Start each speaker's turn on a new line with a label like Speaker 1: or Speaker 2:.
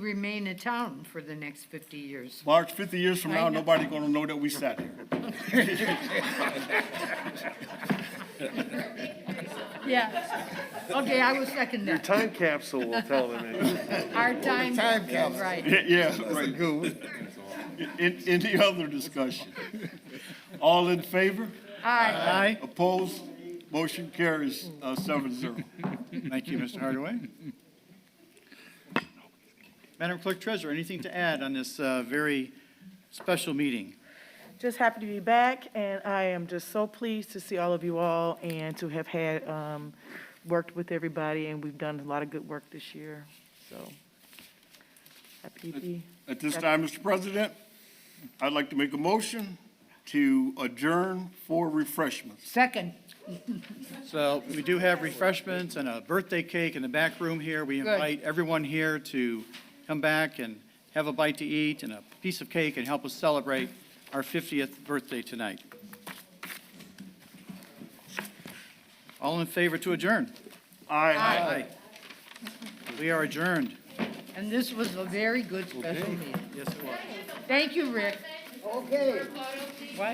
Speaker 1: remain a town for the next 50 years.
Speaker 2: March, 50 years from
Speaker 1: I
Speaker 2: now,
Speaker 1: know.
Speaker 2: nobody gonna know that we sat here.
Speaker 1: Yeah. Okay, I will second that.
Speaker 3: Time capsule will tell them. it.
Speaker 1: Our time.
Speaker 4: Time capsule.
Speaker 1: Right.
Speaker 2: Yeah, Yeah, right.
Speaker 4: Good.
Speaker 2: In- Any other discussion? All in favor?
Speaker 1: Aye.
Speaker 4: Aye.
Speaker 2: Opposed? Motion carries uh, seven zero.
Speaker 4: Thank you, Mr. Hardaway. Madam Clerk Treasurer, anything to add on this uh, very special meeting?
Speaker 5: Just happy to be back, and I am just so pleased to see all of you all and to have had, um, worked with everybody, and we've done a lot of good work this year, so. Happy to be,
Speaker 2: At this time, Mr. President, I'd like to make a motion to adjourn for refreshments.
Speaker 1: Second.
Speaker 4: So we do have refreshments and a birthday cake in the back room here. We
Speaker 1: Good.
Speaker 4: invite everyone here to come back and have a bite to eat and a piece of cake and help us celebrate our 50th birthday tonight. All in favor to adjourn?
Speaker 2: Aye.
Speaker 4: Aye. We are adjourned.
Speaker 1: And this was a very good special meeting.
Speaker 4: Yes, it was.
Speaker 1: Thank you, Rick.